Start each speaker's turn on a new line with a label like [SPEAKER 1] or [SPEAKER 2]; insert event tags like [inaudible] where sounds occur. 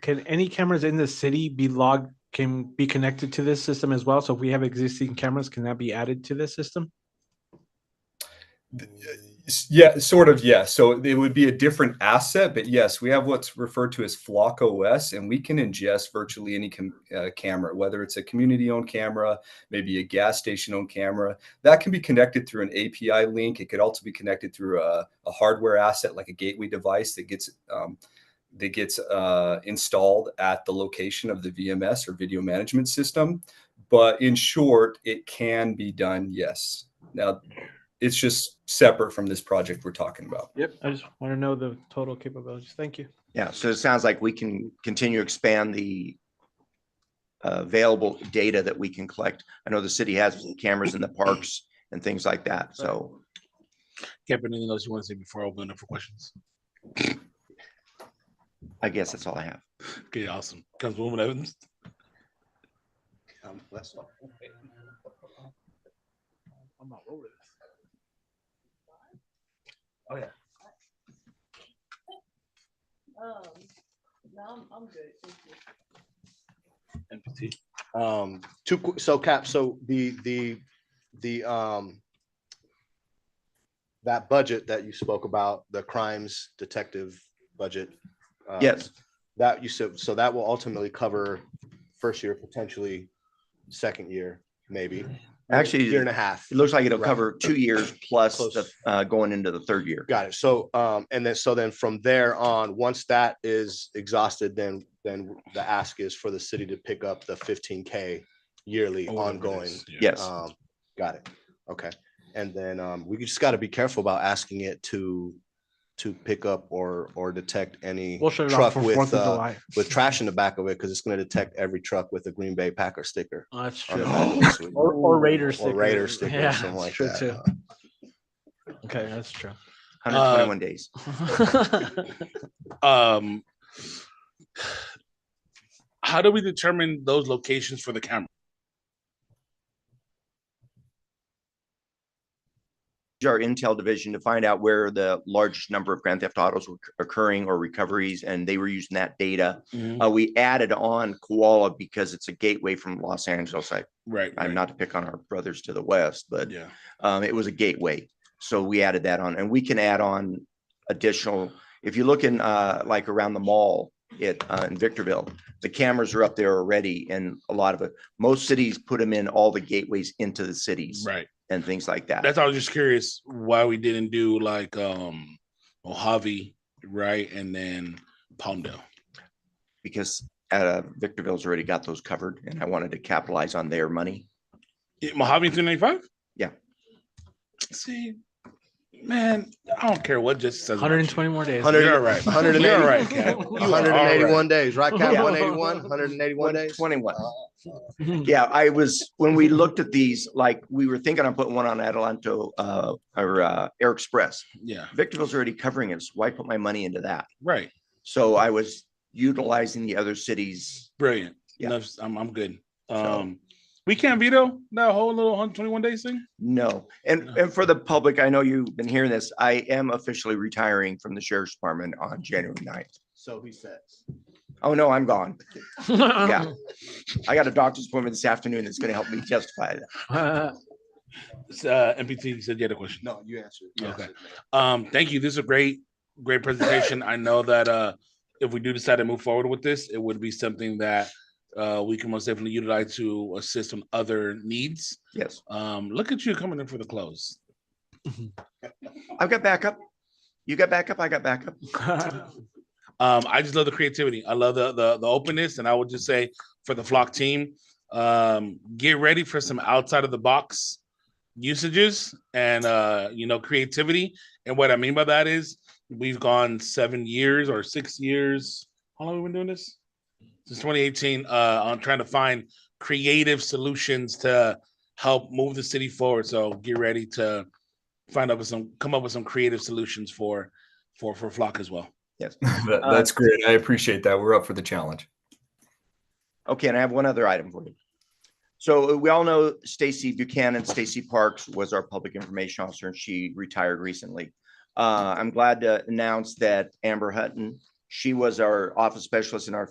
[SPEAKER 1] can any cameras in the city be logged, can be connected to this system as well? So if we have existing cameras, can that be added to this system?
[SPEAKER 2] uh, S- Yeah, sort of. Yes. So it would be a different asset, but yes, we have what's referred to as Flock OS, and we can ingest virtually any com- uh, camera, whether it's a community-owned camera, maybe a gas station-owned camera. That can be connected through an API link. It could also be connected through a, a hardware asset, like a gateway device that gets um, that gets uh, installed at the location of the VMS or video management system. But in short, it can be done. Yes. Now, it's just separate from this project we're talking about.
[SPEAKER 1] Yep. I just want to know the total capabilities. Thank you.
[SPEAKER 3] Yeah, so it sounds like we can continue to expand the uh, available data that we can collect. I know the city has cameras in the parks and things like that, so.
[SPEAKER 4] Kevin, anything else you want to say before I open it up for questions?
[SPEAKER 3] I guess that's all I have.
[SPEAKER 4] Okay, awesome. Councilwoman Evans?
[SPEAKER 5] Um, no, I'm, I'm good, thank you.
[SPEAKER 4] NPT.
[SPEAKER 6] Um, two, qu- so Cap, so the, the, the, um, that budget that you spoke about, the crimes detective budget. uh,
[SPEAKER 3] Yes,
[SPEAKER 6] That you said, so that will ultimately cover first year, potentially second year, maybe.
[SPEAKER 3] Actually,
[SPEAKER 6] Year and a half.
[SPEAKER 3] it looks like it'll
[SPEAKER 6] Right.
[SPEAKER 3] cover two years plus the,
[SPEAKER 6] Close.
[SPEAKER 3] uh, going into the third year.
[SPEAKER 6] Got it. So, um, and then, so then from there on, once that is exhausted, then, then the ask is for the city to pick up the fifteen K yearly
[SPEAKER 4] Oh, whatever it
[SPEAKER 6] ongoing.
[SPEAKER 4] is, yeah.
[SPEAKER 3] Yes,
[SPEAKER 6] Um, got it. Okay. And then, um, we just gotta be careful about asking it to, to pick up or, or detect any
[SPEAKER 1] We'll shut it off
[SPEAKER 6] truck
[SPEAKER 1] for
[SPEAKER 6] with,
[SPEAKER 1] Fourth of
[SPEAKER 6] uh,
[SPEAKER 1] July.
[SPEAKER 6] with trash in the back of it, because it's gonna detect every truck with a Green Bay Packer sticker.
[SPEAKER 1] [laughs] Oh, That's
[SPEAKER 6] on the
[SPEAKER 1] true.
[SPEAKER 6] back of it,
[SPEAKER 4] [gasps]
[SPEAKER 6] so we-
[SPEAKER 4] Oh,
[SPEAKER 1] Or, or Raider
[SPEAKER 6] Uh, Or
[SPEAKER 1] sticker.
[SPEAKER 6] Raider sticker
[SPEAKER 1] Yeah,
[SPEAKER 6] or something like
[SPEAKER 1] that's true too.
[SPEAKER 6] that.
[SPEAKER 1] Okay, that's
[SPEAKER 6] [laughs]
[SPEAKER 1] true. [laughs]
[SPEAKER 3] hundred and twenty-one days.
[SPEAKER 4] Um, how do we determine those locations for the camera?
[SPEAKER 3] Use Our intel division to find out where the largest number of grand theft autos were occurring or recoveries, and they were using that data. Uh, we added on Koala because it's a gateway from Los Angeles. I,
[SPEAKER 4] Right.
[SPEAKER 3] I'm
[SPEAKER 4] right.
[SPEAKER 3] not to pick on our brothers to the west, but
[SPEAKER 4] Yeah.
[SPEAKER 3] Um, it was a gateway. So we added that on and we can add on additional, if you look in, uh, like around the mall at, uh, in Victorville, the cameras are up there already and a lot of it, most cities put them in all the gateways into the cities
[SPEAKER 4] Right.
[SPEAKER 3] and things like that.
[SPEAKER 4] That's why I was just curious why we didn't do like um Mojave, right? And then Palmdale.
[SPEAKER 3] Because, uh, Victorville's already got those covered and I wanted to capitalize on their money.
[SPEAKER 4] Yeah, Mojave 395?
[SPEAKER 3] Yeah.
[SPEAKER 4] See, man, I don't care what just says. about you.
[SPEAKER 1] Hundred and twenty more days.
[SPEAKER 6] Hundred-
[SPEAKER 4] You're right.
[SPEAKER 6] 180.
[SPEAKER 4] You're right, Cap. You are
[SPEAKER 6] hundred and
[SPEAKER 4] all right.
[SPEAKER 6] eighty-one days, right,
[SPEAKER 1] [laughs]
[SPEAKER 6] Cap?
[SPEAKER 1] Yeah.
[SPEAKER 6] 181, 181 days?
[SPEAKER 3] Twenty-one.
[SPEAKER 1] [laughs] Mhm.
[SPEAKER 3] Yeah, I was, when we looked at these, like, we were thinking of putting one on Adelanto, uh, or, uh, Air Express.
[SPEAKER 4] Yeah,
[SPEAKER 3] Victorville's already covering it, so why put my money into that?
[SPEAKER 4] right.
[SPEAKER 3] So I was utilizing the other cities.
[SPEAKER 4] Brilliant.
[SPEAKER 3] Yeah.
[SPEAKER 4] Enough, I'm, I'm good.
[SPEAKER 3] So-
[SPEAKER 4] Um, we can't veto that whole little 121 days thing.
[SPEAKER 3] No, and, and for the public, I know you've been hearing this, I am officially retiring from the sheriff's department on January 9th.
[SPEAKER 6] So he says.
[SPEAKER 3] Oh, no, I'm gone. Yeah. I got a doctor's appointment this afternoon that's gonna help me [laughs] justify that.
[SPEAKER 1] [laughs]
[SPEAKER 4] It's, Uh, MPT said you had a question.
[SPEAKER 6] No, you answered.
[SPEAKER 4] You Okay. Um, thank you. This is a great, great presentation. I know that uh, if we do decide to move forward with this, it would be something that uh, we can most definitely utilize to assist on other needs.
[SPEAKER 3] Yes,
[SPEAKER 4] Um, look at you coming in for the close.
[SPEAKER 3] I've got backup. You got backup, I got backup.
[SPEAKER 1] Uh, [laughs]
[SPEAKER 4] Um, I just love the creativity. I love the the, the openness, and I would just say for the flock team, um, get ready for some outside of the box usages and uh, you know creativity. And what I mean by that is we've gone seven years or six years. How long have we been doing this? Since 2018, uh, on trying to find creative solutions to help move the city forward. So get ready to find out with some, come up with some creative solutions for, for, for flock as well.
[SPEAKER 2] That- that's great. I appreciate that. We're up for the challenge.
[SPEAKER 3] Okay, and I have one other item for you. So uh, we all know Stacy Buchanan, Stacy Parks was our public information officer, and she retired recently. Uh, I'm glad to announce that Amber Hutton, she was our office specialist in our